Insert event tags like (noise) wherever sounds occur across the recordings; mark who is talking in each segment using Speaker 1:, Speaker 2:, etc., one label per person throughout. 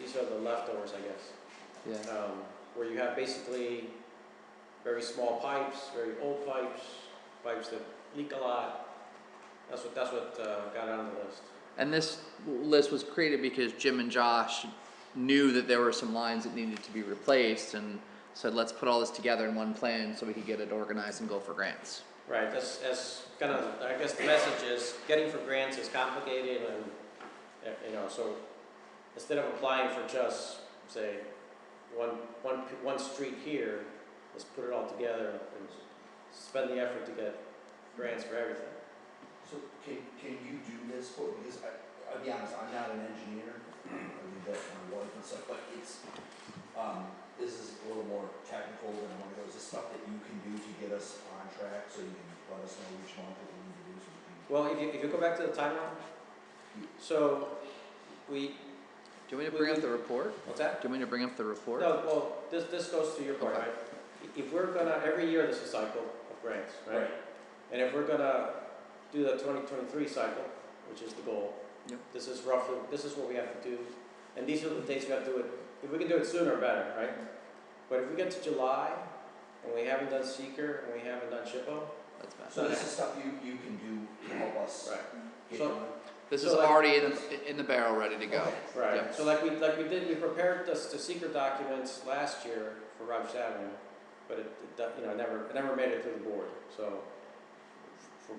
Speaker 1: these are the leftovers, I guess.
Speaker 2: yeah.
Speaker 1: Um, where you have basically very small pipes, very old pipes, pipes that leak a lot. That's what, that's what, uh, got on the list.
Speaker 2: And this list was created because Jim and Josh knew that there were some lines that needed to be replaced and said, let's put all this together in one plan so we could get it organized and go for grants.
Speaker 1: Right, that's, that's kind of, I guess the message is, getting for grants is complicated and, uh, you know, so instead of applying for just, say, one, one, p- one street here, let's put it all together and spend the effort to get grants for everything.
Speaker 3: So can, can you do this for, me? because I, I'll be honest, I'm not an engineer, I do that for my wife and stuff, but it's, um, this is a little more technical than one of those, is stuff that you can do to get us on track, so you can let us know which month that we need to do something.
Speaker 1: Well, if you, if you go back to the timeline, so we,
Speaker 2: Do you want me to bring up the report?
Speaker 1: what's that?
Speaker 2: Do you want me to bring up the report?
Speaker 1: No, well, this, this goes to your point,
Speaker 2: Okay.
Speaker 1: right? If we're gonna, every year there's a cycle of grants, right? And if we're gonna do the twenty twenty-three cycle, which is the goal.
Speaker 2: Yep.
Speaker 1: This is roughly, this is what we have to do, and these are the dates we have to do it, if we can do it sooner, better, right? But if we get to July, and we haven't done seeker, and we haven't done SHPO,
Speaker 2: That's bad.
Speaker 3: So this is stuff you, you can do to help us
Speaker 1: right,
Speaker 3: get
Speaker 1: So-
Speaker 3: on.
Speaker 2: This is
Speaker 1: So, like-
Speaker 2: already in, in the barrel, ready to go.
Speaker 3: Okay.
Speaker 1: right.
Speaker 2: Yep.
Speaker 1: So like we, like we did, we prepared this, the seeker documents last year for Rogers Avenue, but it, it, do- you know, it never, it never made it to the board, so f- for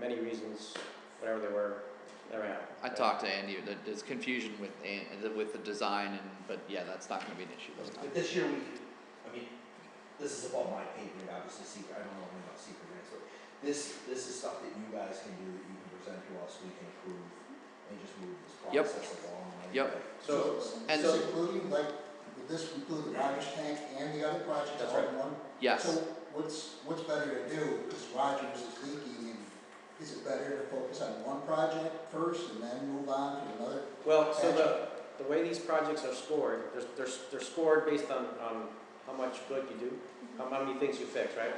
Speaker 1: many reasons, whatever they were, never happened.
Speaker 2: I
Speaker 1: right?
Speaker 2: talked to Andy, there- there's confusion with, An- with the design and, but yeah, that's not gonna be an issue this time.
Speaker 3: But this year, we, I mean, this is above my pay grade, obviously, secret, I don't know anything about secret grants, but this, this is stuff that you guys can do, that you can present to us, we can approve, and just move this
Speaker 2: Yep.
Speaker 3: process along. right?
Speaker 2: Yep.
Speaker 1: So,
Speaker 2: And-
Speaker 4: Is this including, like, would this include the Rogers tank and the other project
Speaker 1: That's
Speaker 4: all
Speaker 1: right.
Speaker 4: in one? So
Speaker 2: Yes,
Speaker 4: what's, what's better to do, because Rogers is leaking, and is it better to focus on one project first and then move on to another?
Speaker 1: Well, so the, the way these projects are scored, they're, they're, they're scored based on, on how much good you do, how how many things you fix, right?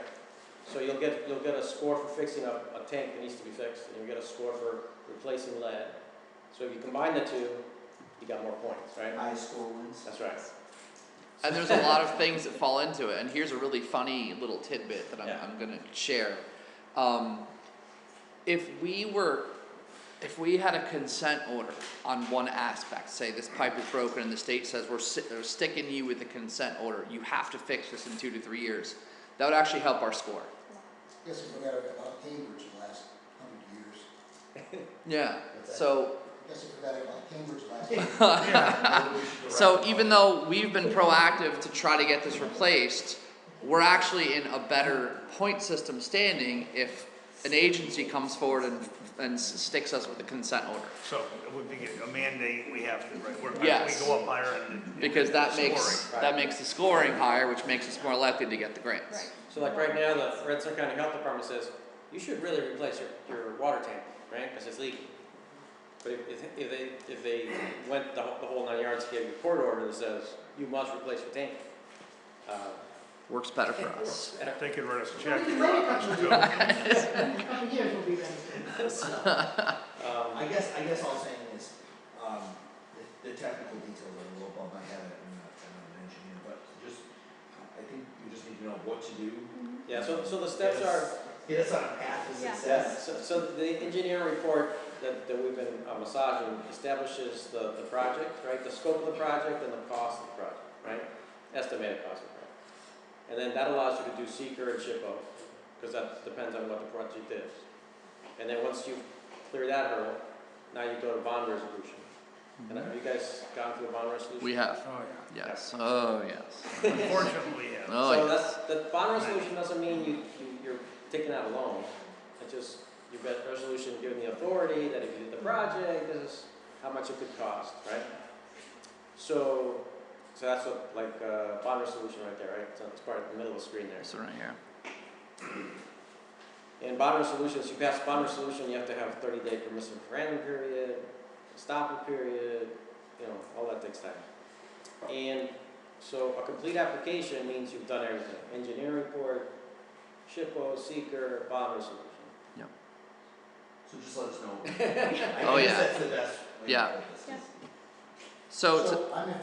Speaker 1: So you'll get, you'll get a score for fixing a, a tank that needs to be fixed, and you'll get a score for replacing lead. So if you combine the two, you got more points, right?
Speaker 3: High school wins.
Speaker 1: That's right.
Speaker 2: and there's a lot of things that fall into it, and here's a really funny little tidbit that I'm,
Speaker 1: Yeah.
Speaker 2: I'm gonna share. Um, if we were, if we had a consent order on one aspect, say this pipe is broken and the state says we're si- they're sticking you with the consent order, you have to fix this in two to three years, that would actually help our score.
Speaker 4: I guess we forgot about Cambridge the last hundred years.
Speaker 2: Yeah,
Speaker 3: That's
Speaker 2: so
Speaker 4: I guess I forgot about Cambridge last
Speaker 5: (laughs)
Speaker 4: hundred
Speaker 2: So even though we've been proactive to try to get this replaced, we're actually in a better point system standing if an agency comes forward and, and s- sticks us with a consent order.
Speaker 6: So it would be a mandate, we have to, right, we're, we
Speaker 2: Yes.
Speaker 6: go up higher in the.
Speaker 2: Because that makes,
Speaker 6: scoring.
Speaker 2: that makes the scoring higher, which makes us more likely to get the grants.
Speaker 1: So like right now, the Rensselaer County Health Department says, you should really replace your, your water tank, right, because it's leaking. But if, if- if they, if they went the whole, the whole nine yards, gave you a court order that says, you must replace your tank. Uh, (laughs)
Speaker 2: Works better for us.
Speaker 6: They could write us a
Speaker 5: We
Speaker 6: check.
Speaker 5: can wait a couple of years.
Speaker 6: So-
Speaker 5: A couple of years will be ready.
Speaker 1: um,
Speaker 3: I guess, I guess all I'm saying is, um, the, the technical details are a little above my head, I'm not, I'm not an engineer, but just, I think we just need to know what to do.
Speaker 1: Yeah, so, so the steps are,
Speaker 3: Get us on a path to
Speaker 5: Yeah.
Speaker 3: success.
Speaker 1: So, so the engineering report that, that we've been uh, massaging establishes the, the project, right, the scope of the project and the cost of the project, right? Estimated cost of the project. And then that allows you to do seeker and SHPO, because that depends on what the project is. And then once you clear that hurdle, now you go to bond resolution. And have you guys gone through the bond resolution?
Speaker 2: We have,
Speaker 6: Oh,
Speaker 2: yes, oh, yes,
Speaker 6: yeah. Unfortunately, yeah.
Speaker 2: oh,
Speaker 1: So
Speaker 2: yes.
Speaker 1: that's, the bond resolution doesn't mean you, you, you're taking out a loan, it just, you've got resolution giving the authority that if you did the project, this is how much it could cost, right? So, so that's what, like, uh, bond resolution right there, right, so it's part of the middle of the screen there.
Speaker 2: So right here,
Speaker 1: In bond resolutions, you pass bond resolution, you have to have thirty day permissive referendum period, stop period, you know, all that takes time. And so a complete application means you've done everything, engineering report, SHPO, seeker, bond resolution.
Speaker 3: So just let us
Speaker 2: (laughs)
Speaker 3: know. I
Speaker 2: Oh,
Speaker 3: guess
Speaker 2: yeah.
Speaker 3: that's the best way to
Speaker 2: Yeah.
Speaker 3: put this.
Speaker 5: Yeah.
Speaker 2: so it's.
Speaker 4: I'm in